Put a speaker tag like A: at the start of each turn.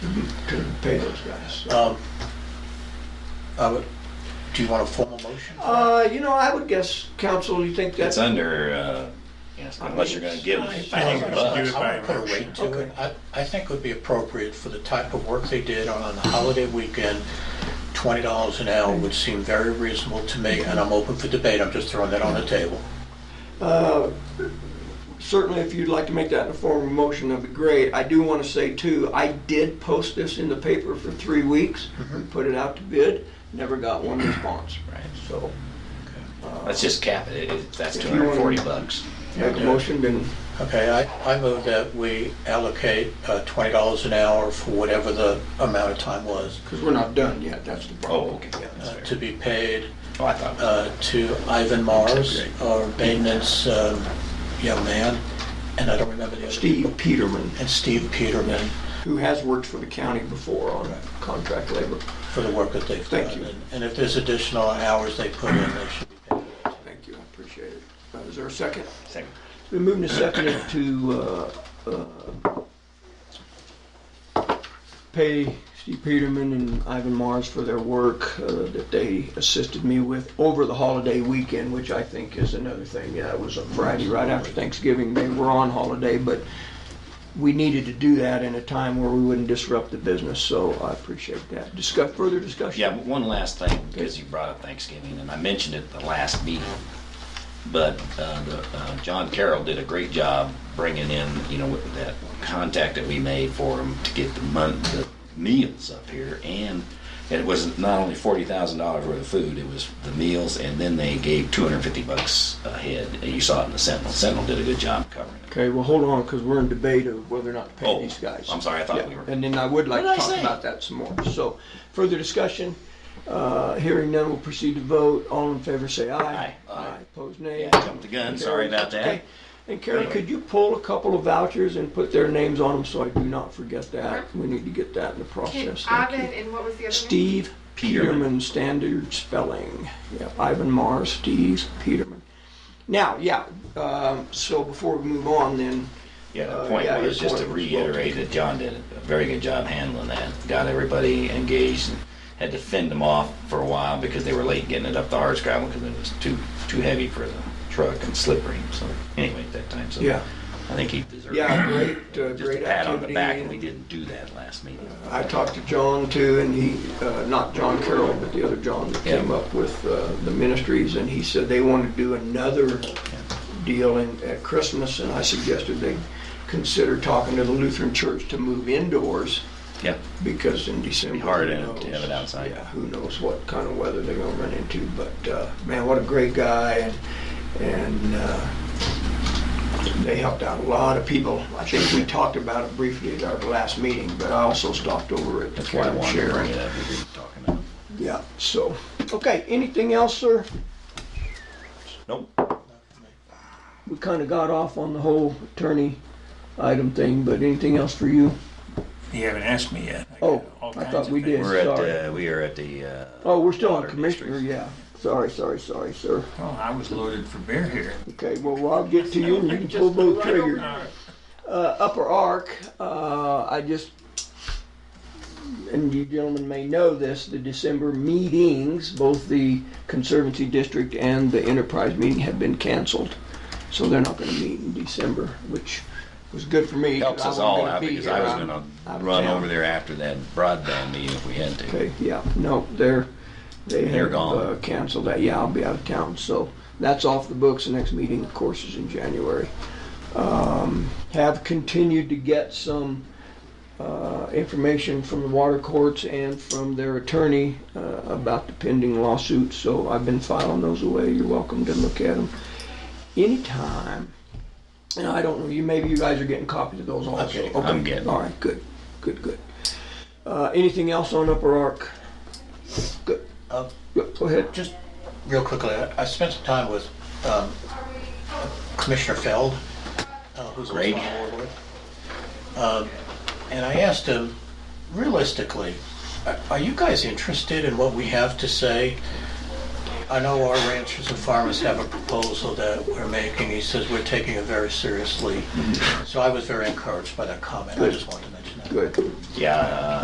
A: to pay those guys.
B: Um, I would, do you want a formal motion?
A: Uh, you know, I would guess, council, you think
C: It's
A: that's,
C: under, uh, yes, unless you're gonna give
A: I
C: a
A: think
D: I think
C: thousand
D: we should
C: bucks.
D: do it by
E: Uh, I would put a
D: motion.
E: weight to it. I, I think would be appropriate for the type of work they did on a holiday weekend. Twenty dollars an hour would seem very reasonable to me, and I'm open for debate, I'm just throwing that on the table.
A: certainly if you'd like to make that in a form of motion, that'd be great. I do want to say too, I did post this in the paper for three weeks, We put it out to bid, never got one response.
C: Mm-hmm. Right.
A: So,
C: Let's just cap it, It- that's
A: If
C: two
A: you wanna-
C: hundred and forty bucks.
A: make a motion, then,
E: Okay, I, I move that we allocate uh, twenty dollars an hour for whatever the amount of time was
A: because we're not done yet, that's the
C: Oh,
A: problem.
C: okay, yeah, that's
E: uh,
C: fair.
E: to be paid
C: Oh, I thought,
E: uh, to Ivan Mars, our maintenance um, young man, and I don't remember the other.
A: Steve Peterman,
E: And Steve Peterman
A: who has worked for the county before on contract labor.
E: for the work that they've done.
A: Thank you.
E: And- And if there's additional hours they put in, they should be paid.
A: Thank you, I appreciate it. Uh, Is there a second?
C: second.
A: We are moving to second to uh, uh, pay Steve Peterman and Ivan Mars for their work uh, that they assisted me with over the holiday weekend, which I think is another thing. Yeah, it was a Friday right after Thanksgiving. They were on holiday, but we needed to do that in a time where we wouldn't disrupt the business, so I appreciate that. Discuss, further discussion?
C: Yeah, one last thing, because you brought up Thanksgiving, and I mentioned it the last meeting, but uh, the, uh, John Carroll did a great job bringing in, you know, with that contact that we made for him to get the month, the meals up here, and it was not only forty thousand dollars worth of food, it was the meals, and then they gave two hundred and fifty bucks a head, and you saw it in the Sentinel, Sentinel did a good job covering it.
A: Okay, well, hold on, because we're in debate of whether or not to pay
C: Oh,
A: these guys.
C: I'm sorry, I thought we
A: Yeah,
C: were-
A: And then I would like
C: What
A: to
C: did I
A: talk
C: say?
A: about that some more. So, further discussion, uh, hearing none, we'll proceed to vote. All in favor, say aye.
C: Aye. Aye.
A: Opposed, nay.
C: Yeah, jumped the gun, sorry about that.
A: Okay. And Karen,
C: Anyway.
A: could you pull a couple of vouchers and put their names on them so I do not forget that? We need to get that in the
F: Can
A: process. Thank
F: Ivan
A: you.
F: and what was the other name?
A: Steve
C: Peterman.
A: Peterman, standard spelling. Yeah, Ivan Mars, Steve Peterman. Now, yeah, um, so before we move on then,
C: Yeah,
A: Uh,
C: the point
A: yeah, your
C: was just to
A: point was well
C: reiterate that John did a very good job handling that. Got everybody engaged and had to fend them off for a while because they were late getting it up the hardscrabble because it was too, too heavy for the truck and slippery. So anyway, at that time, so
A: Yeah.
C: I think he deserved
A: Yeah,
C: it.
A: great, uh,
C: Just a
A: great
C: pat on the
A: activity.
C: back, and we didn't do that last meeting.
A: I talked to John too, and he, uh, not John Carroll, but the other John that came
C: Yeah.
A: up with uh, the ministries, and he said they want to do another deal in, at Christmas, and I suggested they consider talking to the Lutheran Church to move indoors,
C: Yeah,
A: because in December.
C: hard
A: who
C: to have
A: knows?
C: it outside.
A: Yeah, who knows what kind of weather they're gonna run into, but, uh, man, what a great guy, and, and, uh, they helped out a lot of people. I think we talked about it briefly at our last meeting, but I also stopped over at the
C: that's why I
A: Camp
C: wanted to bring it
A: Sharon.
C: up. We were talking about.
A: Yeah, so, okay, anything else, sir?
C: Nope,
A: We kinda got off on the whole attorney item thing, but anything else for you?
D: You haven't asked me yet.
A: Oh,
D: got all
A: I
D: kinds
A: thought
D: of
A: we
D: things.
A: did.
C: we're at,
A: Sorry.
C: uh, we are at the, uh,
A: Oh, we're still on
C: Water
A: commissioner, yeah. Sorry, sorry, sorry, sir.
D: Well, I was loaded for bear here.
A: Okay, well, Rob, get to you and you can pull both triggers. Uh, upper arc, uh, I just, and you gentlemen may know this, the December meetings, both the Conservancy District and the Enterprise meeting have been canceled. So they're not gonna meet in December, which was good for me. 'cause I
C: helps us
A: wasn't
C: all
A: gonna
C: out
A: be
C: because
A: here.
C: I was
A: I'm
C: gonna
A: out of
C: run
A: town.
C: over there after that broadband meeting if we had to.
A: Okay, yeah, no, they're, they
C: They're
A: have
C: gone.
A: uh, canceled that, yeah, I'll be out of town, so that's off the books, the next meeting, of course, is in January. Um, Have continued to get some uh, information from the water courts and from their attorney uh, about the pending lawsuits, so I've been filing those away, you're welcome to look at them anytime. And I don't know, you, maybe you guys are getting copies of those also.
E: getting-
A: Okay.
C: I'm getting.
A: All right, good, good, good. Uh, anything else on Upper Ark? Good.
E: Um,
A: Yeah, Go ahead.
E: Just real quickly, I- I spent some time with um, Commissioner Feld, uh, who's also on
C: Great.
E: the board with. Um, And I asked him, realistically, are- are you guys interested in what we have to say? I know our ranchers and farmers have a proposal that we're making. He says we're taking it very seriously. So I was very encouraged by that comment. I just wanted to mention that.
A: Good.
C: Yeah, uh,